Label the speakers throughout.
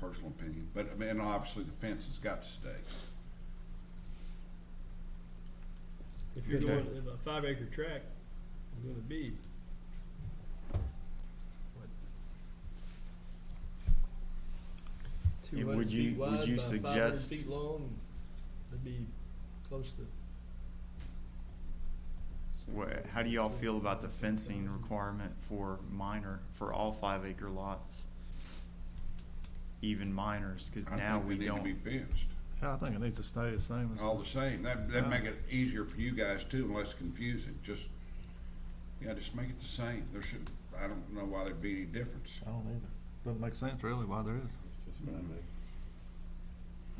Speaker 1: personal opinion, but, I mean, and obviously the fence has got to stay.
Speaker 2: If you're
Speaker 1: Okay.
Speaker 2: doing if a five acre tract, is gonna be. what,
Speaker 3: Yeah,
Speaker 2: 200
Speaker 3: would you-
Speaker 2: feet
Speaker 3: would
Speaker 2: wide
Speaker 3: you
Speaker 2: by 500
Speaker 3: suggest-
Speaker 2: Feet long, that'd be close to.
Speaker 3: Wha- How do y'all feel about the fencing requirement for minor, for all five acre lots? Even minors, because
Speaker 1: I
Speaker 3: now
Speaker 1: think they
Speaker 3: we
Speaker 1: need to Be
Speaker 3: don't,
Speaker 1: fenced,
Speaker 4: Yeah, I think it needs to stay the same. as-
Speaker 1: all the same, that,
Speaker 4: Yeah.
Speaker 1: that'd make it easier for you guys too, and less confusing, just, yeah, just make it the same, there should, I don't know why there'd be any difference.
Speaker 4: I don't either. Doesn't make sense really why there is.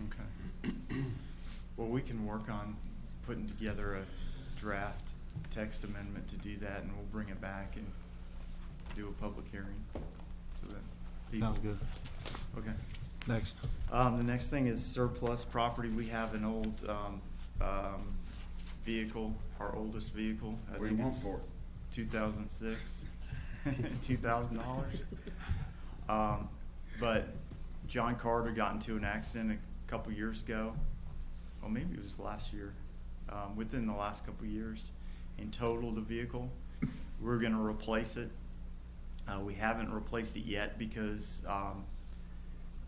Speaker 3: okay. Well, we can work on putting together a draft text amendment to do that, and we'll bring it back and do a public hearing, so that people.
Speaker 4: Sounds good.
Speaker 3: Okay.
Speaker 4: Next.
Speaker 3: Um, the next thing is surplus property. We have an old, um, um, vehicle, our oldest vehicle. I
Speaker 1: What do you
Speaker 3: think
Speaker 1: want
Speaker 3: it's
Speaker 1: for it?
Speaker 3: Two thousand six, two thousand dollars. Um, but John Carter got into an accident a couple years ago. Well, maybe it was last year, um, within the last couple years. In total, the vehicle, we're gonna replace it. Uh, we haven't replaced it yet because, um,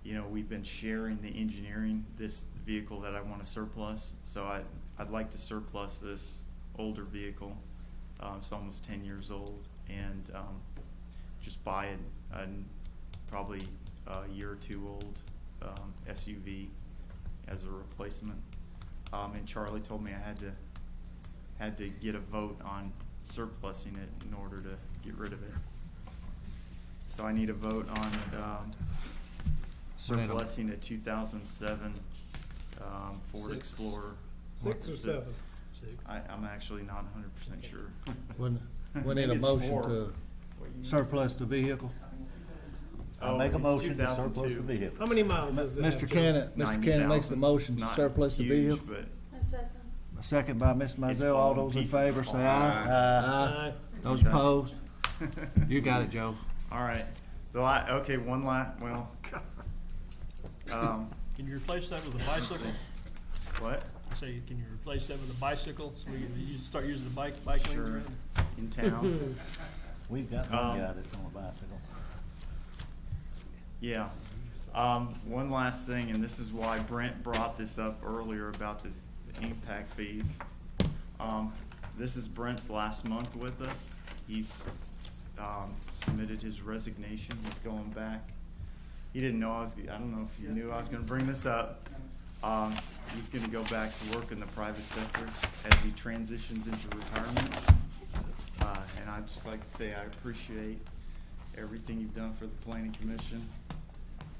Speaker 3: you know, we've been sharing the engineering, this vehicle that I want to surplus. So I, I'd like to surplus this older vehicle. Um, it's almost ten years old and, um, just buy a, a n- probably a year or two old, um, SUV as a replacement. Um, and Charlie told me I had to, had to get a vote on surplusing it in order to get rid of it. So I need a vote on, um,
Speaker 4: We need a-
Speaker 3: surplusing a two thousand seven, um, Ford
Speaker 2: Six.
Speaker 3: Explorer.
Speaker 5: Six or
Speaker 3: Is it-
Speaker 5: seven?
Speaker 2: Six.
Speaker 3: I, I'm actually not hundred percent sure.
Speaker 4: We we need
Speaker 3: Maybe
Speaker 4: a
Speaker 3: it's
Speaker 4: motion
Speaker 3: four.
Speaker 4: to surplus the vehicle.
Speaker 3: Oh,
Speaker 6: Make a
Speaker 3: it's
Speaker 6: motion to surplus
Speaker 3: 2002.
Speaker 6: the vehicle.
Speaker 5: How many miles does it have?
Speaker 4: Mr. Cannon, Mr. Cannon
Speaker 3: 90,000.
Speaker 4: makes the motion
Speaker 3: It's
Speaker 4: to
Speaker 3: not
Speaker 4: surplus the
Speaker 3: huge,
Speaker 4: vehicle.
Speaker 3: but
Speaker 7: A second.
Speaker 4: A second by Ms. Mizell.
Speaker 3: falling
Speaker 4: All those in
Speaker 3: pieces
Speaker 4: favor, say
Speaker 3: apart.
Speaker 4: aye.
Speaker 2: Uh,
Speaker 5: Aye.
Speaker 4: Those
Speaker 3: Okay.
Speaker 4: opposed? You got it, Joe.
Speaker 3: All right. The la- okay, one la- well. Um,
Speaker 2: Can you replace that with a bicycle?
Speaker 3: what?
Speaker 2: I say, can you replace that with a bicycle, so we can use- start using the bike, bike lanes
Speaker 3: Sure.
Speaker 2: around?
Speaker 3: In town?
Speaker 6: We've got
Speaker 3: Um,
Speaker 6: one guy that's on a bicycle.
Speaker 3: Yeah. Um, one last thing, and this is why Brent brought this up earlier about the, the impact fees. Um, this is Brent's last month with us. He's, um, submitted his resignation. He's going back. He didn't know I was, I don't know if you knew I was gonna bring this up. Um, he's gonna go back to work in the private sector as he transitions into retirement. Uh, and I'd just like to say I appreciate everything you've done for the planning commission.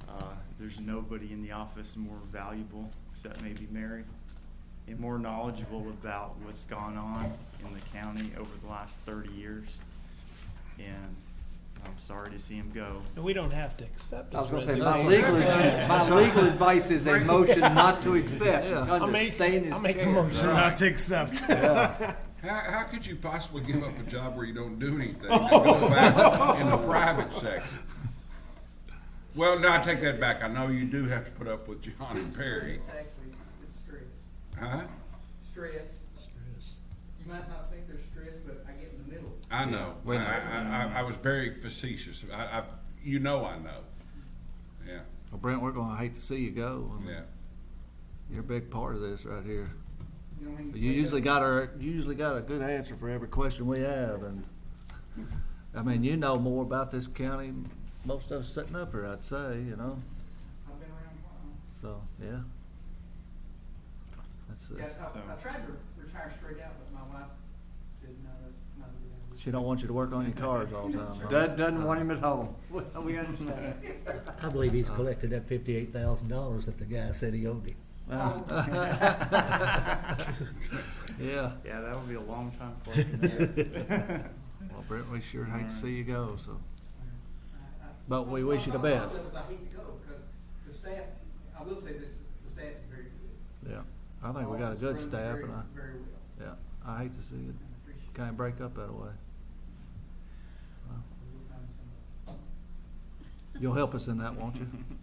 Speaker 3: Uh, There's nobody in the office more valuable, except maybe Mary, and more knowledgeable about what's gone on in the county over the last thirty years. And I'm sorry to see him go.
Speaker 5: And we don't have to accept it.
Speaker 8: I was gonna say, my legal, my legal advice is a motion not to accept,
Speaker 5: I'll
Speaker 8: under
Speaker 5: make,
Speaker 8: stay in his
Speaker 5: I'll make a
Speaker 8: chair.
Speaker 5: motion not to accept.
Speaker 1: How, how could you possibly give up a job where you don't do anything and go back in the private sector? Well, no, I take that back. I know you do have to put up with John and Perry,
Speaker 9: It's actually, it's- it's stress.
Speaker 1: huh?
Speaker 9: Stress. You might not think there's stress, but I get in the middle.
Speaker 1: I know. I,
Speaker 4: Wait a minute.
Speaker 1: I, I, I was very facetious. I, I, you know I know. Yeah,
Speaker 4: Well, Brent, we're gonna hate to see you go. I mean,
Speaker 1: yeah.
Speaker 4: You're a big part of this right here.
Speaker 9: You know, when
Speaker 4: You
Speaker 9: wake
Speaker 4: usually
Speaker 9: up-
Speaker 4: got our, you usually got a good answer for every question we have, and, I mean, you know more about this county, than most of us sitting up here, I'd say, you know,
Speaker 9: I've been around a while.
Speaker 4: so, yeah. That's, uh, that's-
Speaker 9: Yeah, I, I
Speaker 3: so-
Speaker 9: tried to retire straight out, but my wife said, no, that's not a good idea.
Speaker 4: she don't want you to work on your cars all the time. huh?
Speaker 8: Doug doesn't want him at home. We we understand.
Speaker 6: I believe he's collected that fifty-eight thousand dollars that the guy said he owed him.
Speaker 4: Yeah,
Speaker 3: Yeah, that would be a long time collecting
Speaker 4: well, Brent, we sure hate to see you go, so.
Speaker 9: I- I-
Speaker 4: But we wish you the
Speaker 9: on some
Speaker 4: best.
Speaker 9: levels, I hate to go, because the staff, I will say this, the staff is very good.
Speaker 4: Yeah, I think we got a
Speaker 9: Office
Speaker 4: good
Speaker 9: runs
Speaker 4: staff,
Speaker 9: very-
Speaker 4: and I,
Speaker 9: Very well,
Speaker 4: yeah, I hate to see it
Speaker 9: I appreciate it.
Speaker 4: kinda break up that way.
Speaker 9: We'll find somebody.
Speaker 4: You'll help us in that, won't you?
Speaker 3: that.